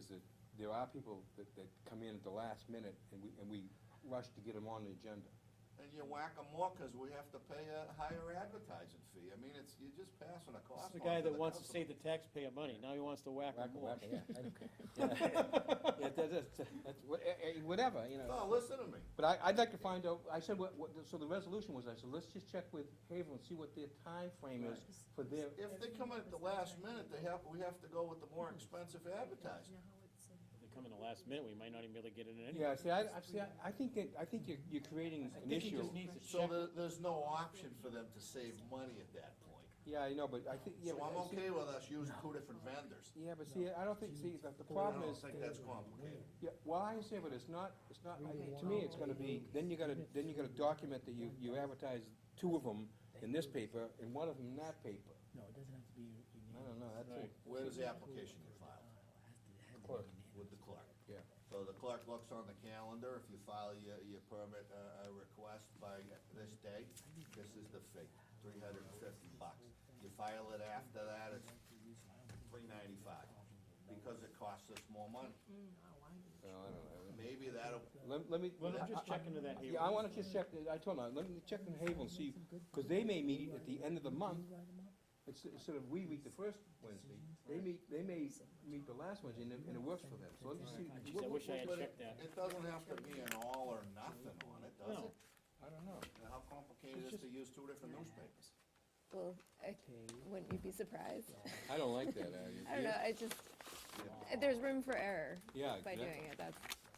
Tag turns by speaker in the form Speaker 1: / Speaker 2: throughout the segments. Speaker 1: that there are people that, that come in at the last minute and we, and we rush to get them on the agenda.
Speaker 2: And you whack 'em more 'cause we have to pay a higher advertising fee. I mean, it's, you're just passing a
Speaker 3: This is
Speaker 2: cost on to
Speaker 3: the
Speaker 2: the
Speaker 3: guy that wants to
Speaker 2: customer.
Speaker 3: save the taxpayer money, now he wants to whack
Speaker 1: Whack
Speaker 3: them
Speaker 1: 'em,
Speaker 3: more.
Speaker 1: whack 'em, yeah, I don't care. Yeah, that- that's- that's wha- eh, eh, Whatever, you know.
Speaker 2: No, listen to me.
Speaker 1: But I, I'd like to find out, I said, what, what, so the resolution was, I said, let's just check with Havel and see what their time frame is for their,
Speaker 2: If they come in at the last minute, they have, we have to go with the more expensive advertising.
Speaker 3: If they come in the last minute, we might not even be able to get it in anyway.
Speaker 1: yeah, see, I, I, see, I- I think that, I think you're, you're creating
Speaker 3: I
Speaker 1: an
Speaker 3: think he
Speaker 1: issue.
Speaker 3: just needs to
Speaker 2: So
Speaker 3: check,
Speaker 2: there, there's no option for them to save money at that point.
Speaker 1: Yeah, I know, but I think, yeah.
Speaker 2: So
Speaker 1: but I
Speaker 2: I'm
Speaker 1: see-
Speaker 2: okay with us using two different vendors.
Speaker 1: Yeah, but see, I don't think, see, the, the
Speaker 2: I
Speaker 1: problem
Speaker 2: don't
Speaker 1: is,
Speaker 2: think that's complicated.
Speaker 1: Yeah, well, I understand, but it's not, it's not, I-
Speaker 4: Okay.
Speaker 1: to me, it's gonna be, then you gotta, then you gotta document that you, you advertise two of them in this paper and one of them in that paper.
Speaker 4: No, it doesn't have to be unanimous.
Speaker 1: I don't know, that's it.
Speaker 2: Where does the application get filed?
Speaker 1: Clerk.
Speaker 2: With the clerk.
Speaker 1: Yeah.
Speaker 2: So the clerk looks on the calendar, if you file your, your permit, uh, uh, request by this date, this is the fee, three hundred and fifty bucks. You file it after that, it's three ninety-five, because uh, it costs us more money.
Speaker 5: Mm.
Speaker 1: No, I don't
Speaker 2: Maybe that'll,
Speaker 1: know. Let, let me.
Speaker 3: let him
Speaker 1: I-
Speaker 3: just
Speaker 1: I-
Speaker 3: check into that here.
Speaker 1: Yeah, I wanna just check, I told her, let me check in Havel and see, cause they may meet at the end of the month, it's, instead of we meet the first Wednesday, they meet, they may meet the last Wednesday and it, and it works for them, so let me see.
Speaker 3: Jeez, I
Speaker 1: what-
Speaker 3: wish I had
Speaker 2: but
Speaker 3: checked that.
Speaker 2: it doesn't have to be an all or nothing on it, does
Speaker 3: No.
Speaker 2: it?
Speaker 1: I don't know.
Speaker 2: And How complicated is it to use two different newspapers?
Speaker 6: Well, I, wouldn't you be surprised?
Speaker 1: I don't like that, I.
Speaker 6: I don't know, I just, uh, there's room for error
Speaker 1: Yeah,
Speaker 6: by
Speaker 1: exactly.
Speaker 6: doing it, that's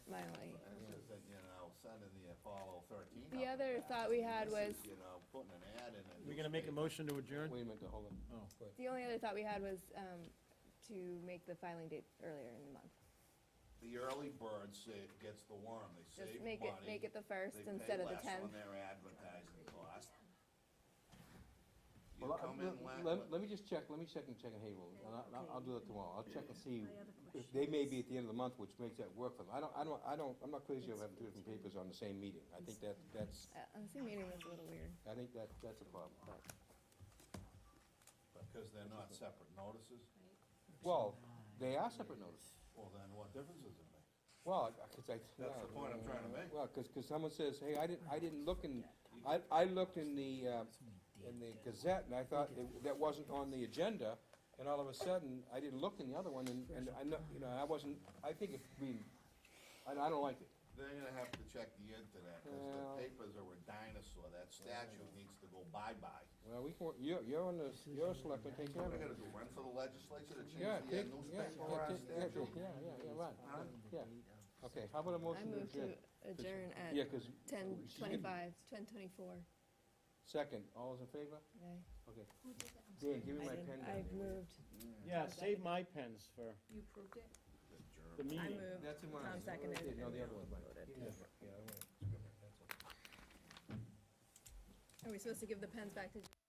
Speaker 6: my only.
Speaker 2: And it's just that, you know, sending the Apollo thirteen.
Speaker 6: The
Speaker 2: up there.
Speaker 6: other thought we had
Speaker 2: This is,
Speaker 6: was,
Speaker 2: You know, putting an ad in a
Speaker 3: We gonna make a
Speaker 2: newspaper.
Speaker 3: motion to adjourn?
Speaker 1: Wait a minute, hold on.
Speaker 3: Oh.
Speaker 1: Go ahead.
Speaker 6: the only other thought we had was, um, to make the filing date earlier in the month.
Speaker 2: The early bird sa- gets the worm, they
Speaker 6: Just
Speaker 2: save money.
Speaker 6: make it, make it the first
Speaker 2: they
Speaker 6: instead
Speaker 2: pay
Speaker 6: of the
Speaker 2: less
Speaker 6: tenth.
Speaker 2: on their advertising cost. You
Speaker 1: Well, I-
Speaker 2: come
Speaker 1: let-
Speaker 2: in la-
Speaker 1: Let, let me just check, let me check and check in Havel, and I'll- I'll, I'll do that tomorrow, I'll check and see if they may be at the end of the month, which makes that work for them. I don't, I don't, I don't, I'm not crazy about having two different papers on the same meeting, I think that, that's,
Speaker 6: Uh, the same meeting was a little weird.
Speaker 1: I think that, that's a problem.
Speaker 2: because they're not separate notices,
Speaker 1: Well, they are separate notices,
Speaker 2: well then what difference does it make?
Speaker 1: well, I- cause I.
Speaker 2: That's the point I'm trying to make.
Speaker 1: Well, cause, 'cause someone says, hey, I didn't, I didn't look in, I, I looked in the, uh, in the Gazette, and I thought it- that wasn't on the agenda, and all of a sudden, I didn't look in the other one, and, and I know, you know, I wasn't, I think it's been, I, I don't like it.
Speaker 2: They're gonna have to check the internet, cause the
Speaker 1: Well-
Speaker 2: papers are a dinosaur, that statue needs to go bye-bye.
Speaker 1: Well, we can, you're, you're on the, you're a selectman, take care
Speaker 2: What
Speaker 1: of
Speaker 2: are we
Speaker 1: it.
Speaker 2: gonna do, run for the legislature to
Speaker 1: Yeah,
Speaker 2: change the
Speaker 1: take,
Speaker 2: uh,
Speaker 1: yeah,
Speaker 2: newspaper
Speaker 1: yeah,
Speaker 2: or our
Speaker 1: take- yeah,
Speaker 2: statute?
Speaker 1: yeah, yeah, yeah, right,
Speaker 2: Huh?
Speaker 1: yeah. Okay, how about a
Speaker 6: I
Speaker 1: motion to
Speaker 6: move to
Speaker 1: adjourn?
Speaker 6: adjourn
Speaker 1: Yeah,
Speaker 6: at
Speaker 1: 'cause,
Speaker 6: ten
Speaker 1: she's gonna-
Speaker 6: twenty-five, ten twenty-four.
Speaker 1: second, all those in favor? Okay.
Speaker 5: um,
Speaker 1: Dan, give me my pen. down
Speaker 6: I've
Speaker 1: there, will you?
Speaker 6: moved.
Speaker 3: Yeah, save my pens for
Speaker 5: You approved it?
Speaker 3: the
Speaker 6: I
Speaker 3: meeting.
Speaker 6: moved.
Speaker 1: That's in mine.
Speaker 6: Tom seconded
Speaker 1: Yeah, No,
Speaker 6: and
Speaker 1: the other
Speaker 6: we
Speaker 1: one,
Speaker 6: all
Speaker 1: Mike.
Speaker 6: voted.
Speaker 1: Yeah, yeah, I want it.
Speaker 6: Are we supposed to give the pens back to